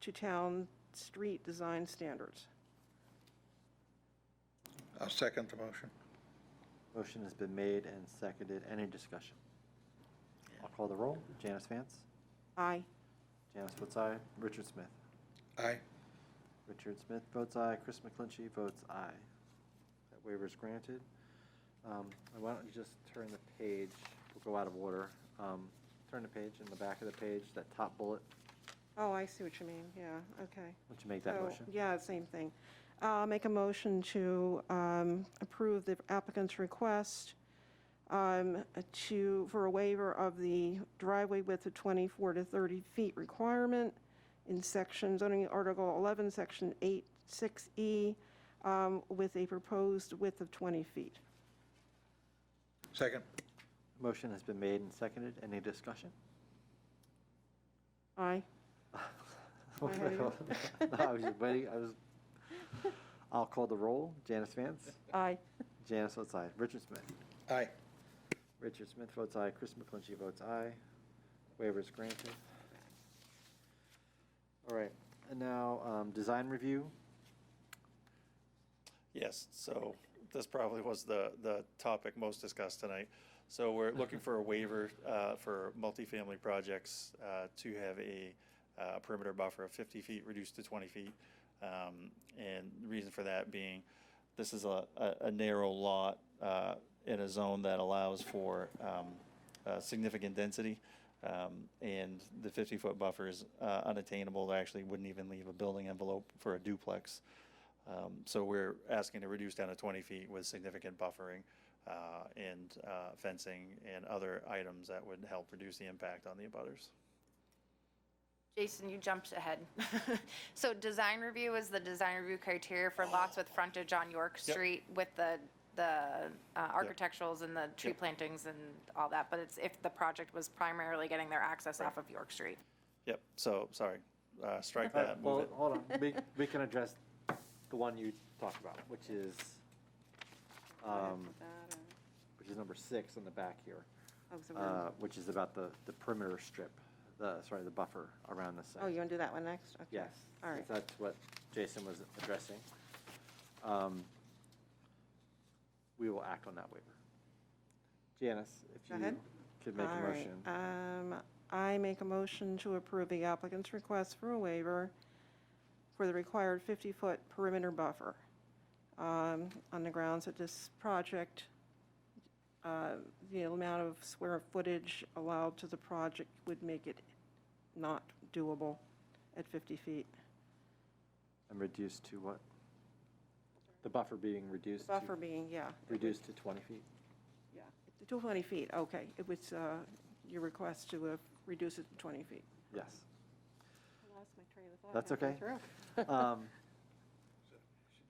to town street design standards. I'll second the motion. Motion has been made and seconded. Any discussion? I'll call the roll. Janice Vance? Aye. Janice votes aye. Richard Smith? Aye. Richard Smith votes aye. Chris McClinchy votes aye. That waiver is granted. Um, and Why don't you just turn the page? We'll go out of order. Um, Turn the page, in the back of the page, that top bullet. Oh, I see what you mean, yeah, okay. Would you make that So, motion? Oh, Yeah, same thing. Uh, Make a motion to um, approve the applicant's request um, to, for a waiver of the driveway width of 24 to 30 feet requirement in section, zoning article 11, section 8, 6E, um, with a proposed width of 20 feet. Second. Motion has been made and seconded. Any discussion? Aye. No, had you. I was just waiting. I was, I'll call the roll. Janice Vance? Aye. Janice votes aye. Richard Smith? Aye. Richard Smith votes aye. Chris McClinchy votes aye. Waiver is granted. All right, and now, um, design review. Yes, so this probably was the, the topic most discussed tonight. So we're looking for a waiver uh, for multifamily projects uh, to have a uh, perimeter buffer of 50 feet reduced to 20 feet. Um, And the reason for that being, this is a, a- a narrow lot uh, in a zone that allows for um, uh, significant density. um, And the 50-foot buffer is uh, unattainable, They actually wouldn't even leave a building envelope for a duplex. Um, So we're asking to reduce down to 20 feet with significant buffering uh, and uh, fencing and other items that would help reduce the impact on the abutters. Jason, you jumped ahead. So design review is the design review criteria for lots with frontage on York Yep. Street with the, the uh, architecturals and the tree plantings and all that, but it's if the project was primarily getting their access off of York Street. Yep, so, sorry, uh, strike All right, that, move Well, it. hold on, we, we can address the one you talked about, which is, um, which is number six on the back here, Oh, so we're- uh, which is about the, the perimeter strip, the, sorry, the buffer around the site. Oh, you want to do that one next? Okay. Yes. All right. That's what Jason was addressing. Um, We will act on that waiver. Janice, if Go you ahead. could make a All right, motion. Um, I make a motion to approve the applicant's request for a waiver for the required 50-foot perimeter buffer um, on the grounds that this project, uh, the amount of square footage allowed to the project would make it not doable at 50 feet. And reduced to what? The buffer being reduced Buffer to, being, yeah. it would- reduced to 20 feet? Yeah, to 20 feet, okay. It was uh, your request to uh, reduce it to 20 feet. Yes. I lost my train of thought That's halfway okay. through. Um,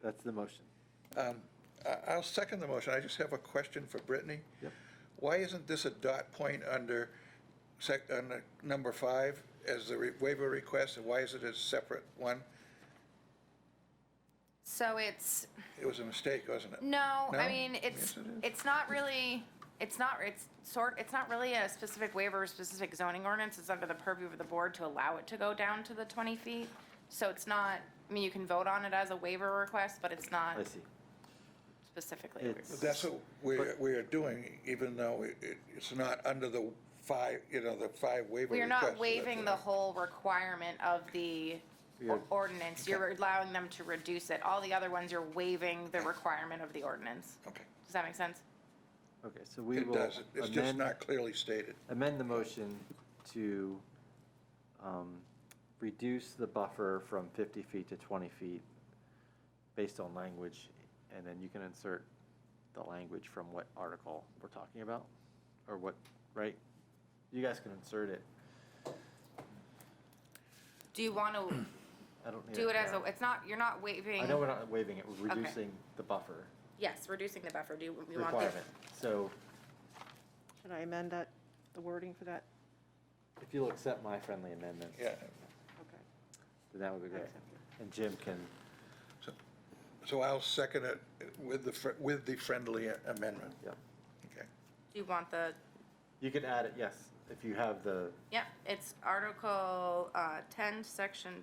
That's the motion. Um, I- I'll second the motion. I just have a question for Brittany. Yep. Why isn't this a dot point under sec, under number five as the re- waiver request? And why is it a separate one? So it's, It was a mistake, wasn't it? No, No? I mean, it's, Yes, it is. it's not really, it's not, it's sort, it's not really a specific waiver or specific zoning ordinance. It's under the purview of the board to allow it to go down to the 20 feet. So it's not, I mean, you can vote on it as a waiver request, but it's not I see. specifically. a waiver. It's, That's what we're, we are doing, even though it, it- it's not under the five, you know, the five waiver We are requests. not waiving the whole requirement of the You're- ordinance. You're allowing them to reduce it. All the other ones, you're waiving the requirement of the ordinance. Okay. Does that make sense? okay, so we It will does. It's just amend- not clearly stated. amend the motion to um, reduce the buffer from 50 feet to 20 feet based on language, and then you can insert the language from what article we're talking about, or what, right? You guys can insert it. Do you want to I don't need do it as a, now. it's not, you're not waiving. I know we're not waiving it, we're Okay. reducing the buffer Yes, reducing the buffer, do you, we want the, requirement. So Should I amend that, the wording for that? if you'll accept my friendly amendment, Yeah. Okay. then that would be I great. accept it. And Jim can, So- So I'll second it with the, fr- with the friendly amendment. yeah. Okay. do you want the, You could add it, yes, if you have the yeah, it's Article, uh, ten, Section